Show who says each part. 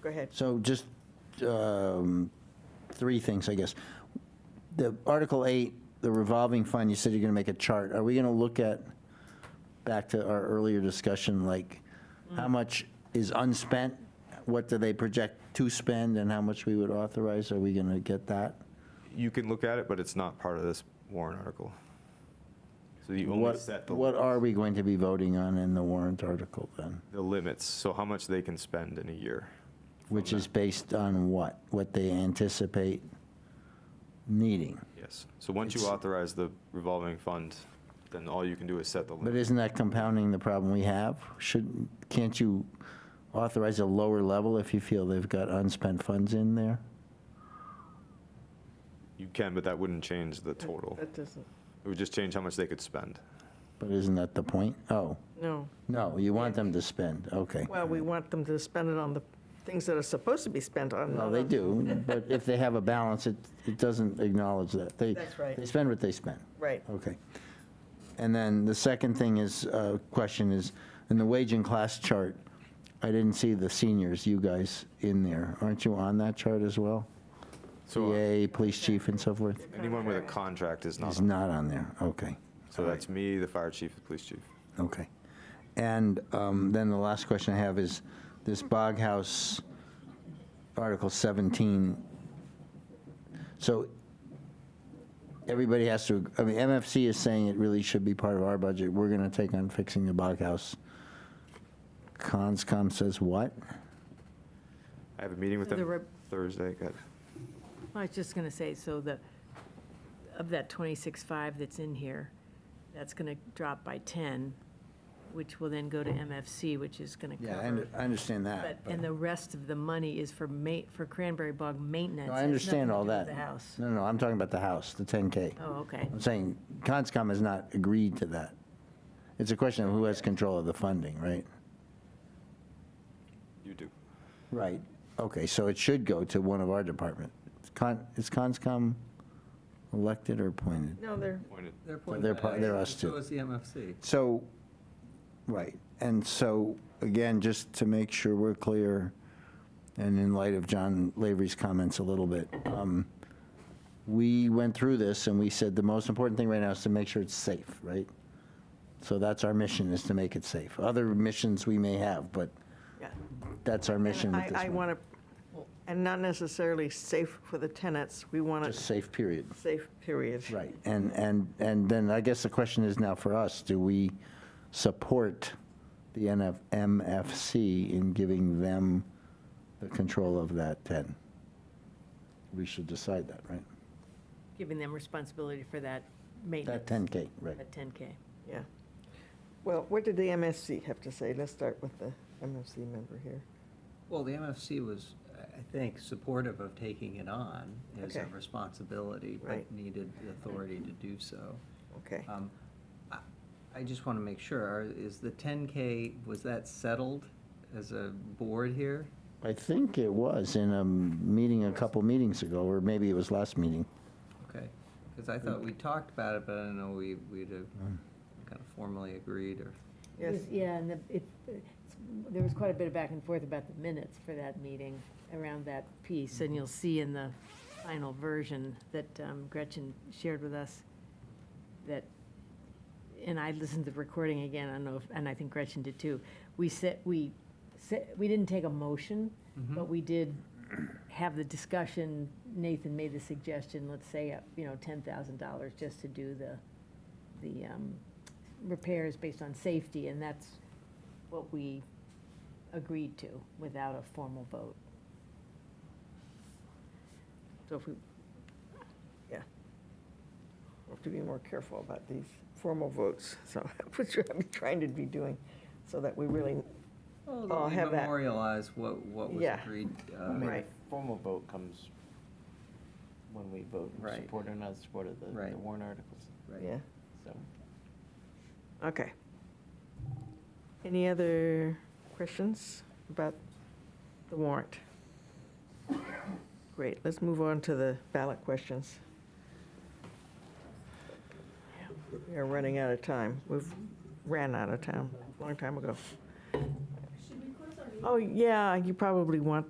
Speaker 1: go ahead.
Speaker 2: So just um, three things, I guess. The Article 8, the revolving fund, you said you're going to make a chart. Are we going to look at, back to our earlier discussion, like, how much is unspent? What do they project to spend and how much we would authorize? Are we going to get that?
Speaker 3: You can look at it, but it's not part of this warrant article. So you only
Speaker 2: What,
Speaker 3: set the.
Speaker 2: what are we going to be voting on in the warrant article then?
Speaker 3: The limits, so how much they can spend in a year.
Speaker 2: Which is based on what? What they anticipate needing?
Speaker 3: Yes. So once you
Speaker 2: It's-
Speaker 3: authorize the revolving fund, then all you can do is set the
Speaker 2: But
Speaker 3: limit.
Speaker 2: isn't that compounding the problem we have? Should, can't you authorize a lower level if you feel they've got unspent funds in there?
Speaker 3: You can, but that wouldn't change the total.
Speaker 1: That doesn't,
Speaker 3: It would just change how much they could spend.
Speaker 2: But isn't that the point? Oh,
Speaker 1: no.
Speaker 2: no, you want them to spend, okay.
Speaker 1: Well, we want them to spend it on the things that are supposed to be spent on.
Speaker 2: Well,
Speaker 1: not
Speaker 2: they
Speaker 1: on-
Speaker 2: do, but if they have a balance, it, it doesn't acknowledge that. They-
Speaker 1: That's right.
Speaker 2: They spend what they spend.
Speaker 1: Right.
Speaker 2: Okay. And then the second thing is, uh, question is, in the wage and class chart, I didn't see the seniors, you guys, in there. Aren't you on that chart as well?
Speaker 3: So uh,
Speaker 2: PA, police chief and so forth?
Speaker 3: anyone with a contract is not,
Speaker 2: Is not on there, okay,
Speaker 3: so that's me, the fire chief, the police chief.
Speaker 2: okay. And um, then the last question I have is, this Bog House, Article 17, so everybody has to, I mean, MFC is saying it really should be part of our budget, we're going to take on fixing the Bog House. Conscom says what?
Speaker 3: I have a meeting with
Speaker 4: So the
Speaker 3: them
Speaker 4: rep-
Speaker 3: Thursday. Got-
Speaker 4: I was just going to say, so the, of that 26.5 that's in here, that's going to drop by 10, which will then go to MFC, which is going to
Speaker 2: Yeah, I under-
Speaker 4: cover.
Speaker 2: I understand
Speaker 4: But,
Speaker 2: that. but-
Speaker 4: and the rest of the money is for ma, for Cranberry Bog maintenance.
Speaker 2: No, I
Speaker 4: It has
Speaker 2: understand
Speaker 4: nothing to
Speaker 2: all
Speaker 4: do with
Speaker 2: that.
Speaker 4: The house.
Speaker 2: No, no, I'm talking about the house, the 10K.
Speaker 4: Oh, okay.
Speaker 2: I'm saying Conscom has not agreed to that. It's a question of who has control of the funding, right?
Speaker 3: You do.
Speaker 2: Right. Okay, so it should go to one of our department. Con- Is Conscom elected or appointed?
Speaker 1: No, they're,
Speaker 3: Appointed.
Speaker 5: They're
Speaker 2: They're
Speaker 5: appointed
Speaker 2: part-
Speaker 5: by
Speaker 2: they're
Speaker 5: us,
Speaker 2: us
Speaker 5: so
Speaker 2: too.
Speaker 5: is the MFC.
Speaker 2: So, right, and so, again, just to make sure we're clear, and in light of John Lavery's comments a little bit, um, we went through this and we said the most important thing right now is to make sure it's safe, right? So that's our mission, is to make it safe. Other missions we may have, but
Speaker 1: yeah.
Speaker 2: that's our mission
Speaker 1: And
Speaker 2: with this
Speaker 1: I, I
Speaker 2: one.
Speaker 1: want to, and not necessarily safe for the tenants, we want
Speaker 2: Just
Speaker 1: it
Speaker 2: safe, period.
Speaker 1: safe, period.
Speaker 2: Right, and, and, and then I guess the question is now for us, do we support the NF, MFC in giving them the control of that 10? We should decide that, right?
Speaker 4: Giving them responsibility for that
Speaker 2: That
Speaker 4: maintenance,
Speaker 2: 10K, right.
Speaker 4: that 10K.
Speaker 1: Yeah. Well, what did the MSC have to say? Let's start with the MSC member here.
Speaker 5: Well, the MFC was, I I think, supportive of taking it on as a
Speaker 1: Okay.
Speaker 5: responsibility,
Speaker 1: Right.
Speaker 5: but needed the authority to do so.
Speaker 1: Okay.
Speaker 5: Um, I I just want to make sure, are- is the 10K, was that settled as a board here?
Speaker 2: I think it was in a meeting a couple meetings ago, or maybe it was last meeting.
Speaker 5: Okay, because I thought we talked about it, but I don't know, we, we'd have
Speaker 2: Mm.
Speaker 5: kind of formally agreed or.
Speaker 1: Yes.
Speaker 4: Yeah, and the- it, it's- there was quite a bit of back and forth about the minutes for that meeting, around that piece, and you'll see in the final version that um, Gretchen shared with us, that, and I listened to the recording again, I don't know, if and I think Gretchen did too, we said, we, said- we didn't take a motion, but we did have the discussion, Nathan made the suggestion, let's say, uh, you know, $10,000 just to do the, the um, repairs based on safety, and that's what we agreed to without a formal vote. So if we,
Speaker 1: We have to be more careful about these formal votes, so that's what I'm trying to be doing, so that we really,
Speaker 5: Well,
Speaker 1: Oh,
Speaker 5: that we
Speaker 1: have that.
Speaker 5: Memorialize what, what was
Speaker 1: Yeah.
Speaker 5: agreed. uh,
Speaker 6: I mean, the
Speaker 1: Right.
Speaker 6: formal vote comes when we vote
Speaker 5: Right.
Speaker 6: in support or not support of the the
Speaker 5: Right.
Speaker 6: warrant articles,
Speaker 5: right.
Speaker 1: yeah,
Speaker 6: so.
Speaker 1: okay. Any other questions about the warrant? Great, let's move on to the ballot questions. We are running out of time. We've ran out of time a long time ago. Oh, yeah, you probably want to.